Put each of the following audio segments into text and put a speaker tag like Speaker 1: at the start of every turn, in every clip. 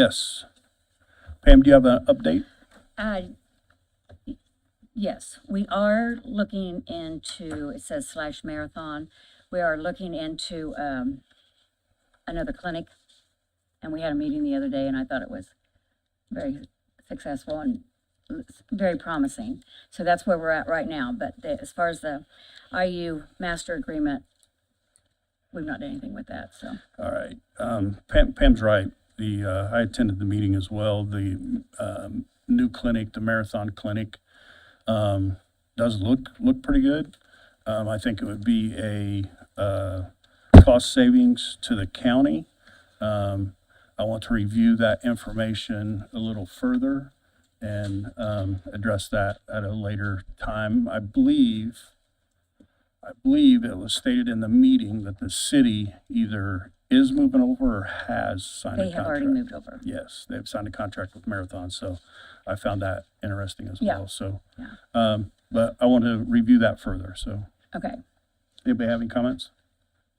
Speaker 1: Yes. Pam, do you have an update?
Speaker 2: Uh, Yes, we are looking into, it says slash marathon, we are looking into um, another clinic. And we had a meeting the other day and I thought it was very successful and it's very promising. So that's where we're at right now, but the- as far as the IU master agreement, we've not done anything with that, so.
Speaker 1: All right. Um, Pam, Pam's right. The, uh, I attended the meeting as well. The, um, new clinic, the Marathon Clinic, um, does look, look pretty good. Um, I think it would be a, uh, cost savings to the county. Um, I want to review that information a little further and, um, address that at a later time. I believe, I believe it was stated in the meeting that the city either is moving over or has signed a
Speaker 2: They
Speaker 1: contract.
Speaker 2: have already moved over.
Speaker 1: Yes, they've signed a contract with Marathon, so I found that interesting as
Speaker 2: Yeah.
Speaker 1: well, so.
Speaker 2: Yeah.
Speaker 1: Um, but I want to review that further, so.
Speaker 2: Okay,
Speaker 1: Anybody have any comments?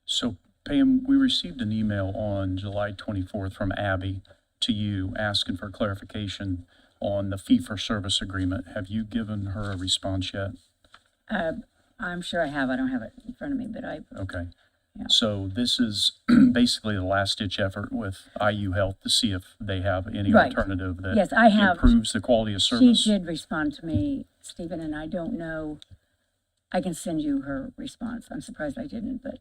Speaker 3: So Pam, we received an email on July 24th from Abby to you asking for clarification on the fee-for-service agreement. Have you given her a response yet?
Speaker 2: Uh, I'm sure I have, I don't have it in front of me, but I,
Speaker 3: Okay.
Speaker 2: Yeah.
Speaker 3: So this is basically the last-ditch effort with IU Health to see if they have any
Speaker 2: Right.
Speaker 3: alternative that
Speaker 2: Yes, I have-
Speaker 3: improves the quality of
Speaker 2: She
Speaker 3: service.
Speaker 2: did respond to me, Stephen, and I don't know, I can send you her response. I'm surprised I didn't, but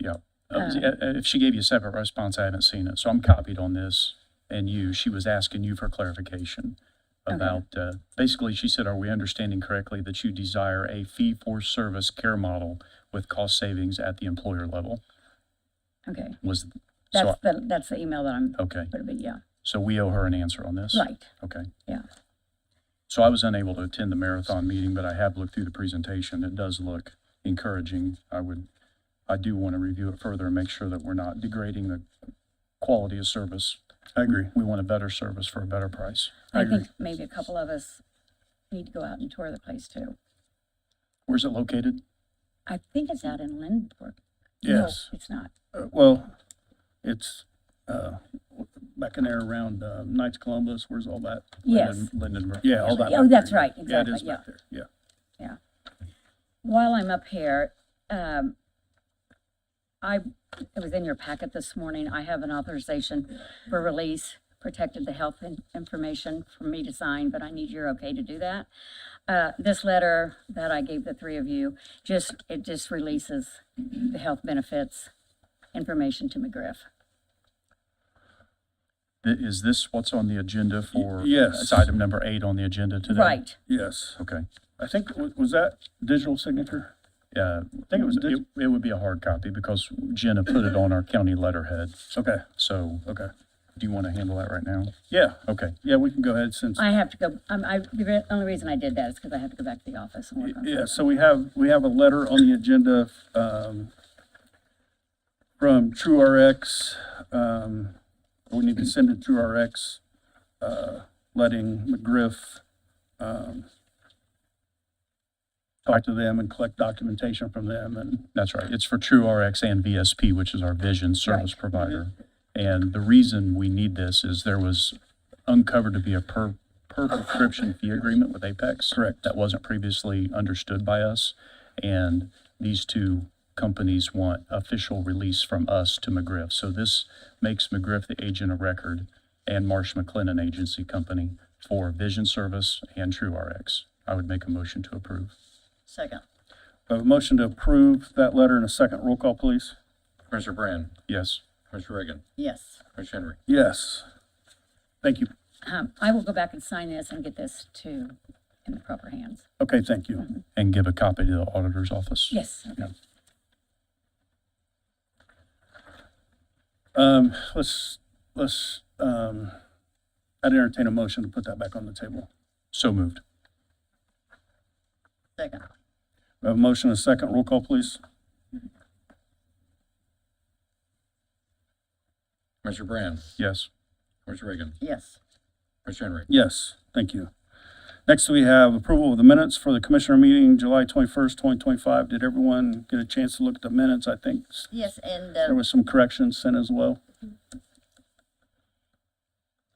Speaker 3: Yeah. Uh,
Speaker 2: Um,
Speaker 3: uh, If she gave you a separate response, I haven't seen it. So I'm copied on this and you. She was asking you for clarification about, uh, basically, she said, are we understanding correctly that you desire a fee-for-service care model with cost savings at the employer level?
Speaker 2: okay.
Speaker 3: Was, so,
Speaker 2: That's the, that's the email that I'm,
Speaker 3: okay.
Speaker 2: but but yeah,
Speaker 3: So we owe her an answer on this?
Speaker 2: right,
Speaker 3: Okay.
Speaker 2: yeah.
Speaker 3: So I was unable to attend the marathon meeting, but I have looked through the presentation. It does look encouraging. I would, I do want to review it further and make sure that we're not degrading the quality of service.
Speaker 1: I agree.
Speaker 3: We want a better service for a better price.
Speaker 2: I think maybe a couple of us need to go out and tour the place too.
Speaker 3: Where's it located?
Speaker 2: I think it's out in Lindbergh.
Speaker 1: Yes.
Speaker 2: No, it's not.
Speaker 1: Uh, well, it's, uh, back in there around, uh, Knights Columbus, where's all that?
Speaker 2: Yes.
Speaker 3: Lindenberg.
Speaker 1: Yeah, all that.
Speaker 2: Oh,
Speaker 1: back there,
Speaker 2: that's right,
Speaker 1: Yeah, it is
Speaker 2: exactly, yeah.
Speaker 1: back there, yeah.
Speaker 2: Yeah. While I'm up here, um, I, it was in your packet this morning, I have an authorization for release, protected the health in- information for me to sign, but I need your okay to do that. Uh, this letter that I gave the three of you, just, it just releases the health benefits information to McGriff.
Speaker 3: Th- Is this what's on the agenda for?
Speaker 1: yes.
Speaker 3: It's item number eight on the agenda today?
Speaker 2: Right,
Speaker 1: Yes.
Speaker 3: Okay.
Speaker 1: I think, wa- was that digital signature?
Speaker 3: Yeah, I think it was, it it would be a hard copy because Jenna put it on our county letterhead.
Speaker 1: Okay,
Speaker 3: So
Speaker 1: okay.
Speaker 3: do you want to handle that right now?
Speaker 1: Yeah,
Speaker 3: Okay.
Speaker 1: yeah, we can go ahead since,
Speaker 2: I have to go, um, I, the re- only reason I did that is because I have to go back to the office and work on
Speaker 1: yeah,
Speaker 2: it.
Speaker 1: so we have, we have a letter on the agenda, um, from TrueRx, um, we need to send it to TrueRx, uh, letting McGriff, um, talk to them and collect documentation from them and,
Speaker 3: That's right. It's for True RX and VSP, which is our vision service
Speaker 2: Right.
Speaker 3: provider. And the reason we need this is there was uncovered to be a per, per prescription fee agreement with Apex.
Speaker 1: Correct.
Speaker 3: That wasn't previously understood by us. And these two companies want official release from us to McGriff. So this makes McGriff the agent of record and Marsh McLennan Agency Company for Vision Service and True RX. I would make a motion to approve.
Speaker 2: Second.
Speaker 1: I have a motion to approve that letter in a second. Roll call, please.
Speaker 4: Commissioner Brand,
Speaker 3: Yes.
Speaker 4: Commissioner Reagan,
Speaker 2: Yes.
Speaker 4: Commissioner Henry.
Speaker 1: Yes. Thank you.
Speaker 2: Um, I will go back and sign this and get this to, in the proper hands.
Speaker 1: Okay, thank you.
Speaker 3: And give a copy to the auditor's office.
Speaker 2: Yes.
Speaker 1: Um, let's, let's, um, I'd entertain a motion to put that back on the table.
Speaker 3: So moved.
Speaker 2: Second.
Speaker 1: We have a motion and a second. Roll call, please.
Speaker 4: Commissioner Brand,
Speaker 3: Yes.
Speaker 4: Commissioner Reagan,
Speaker 2: Yes.
Speaker 4: Commissioner Henry.
Speaker 1: Yes, thank you. Next, we have approval of the minutes for the commissioner meeting, July twenty-first, twenty twenty-five. Did everyone get a chance to look at the minutes? I think s-
Speaker 5: Yes, and
Speaker 1: there
Speaker 5: uh,
Speaker 1: was some corrections sent as well.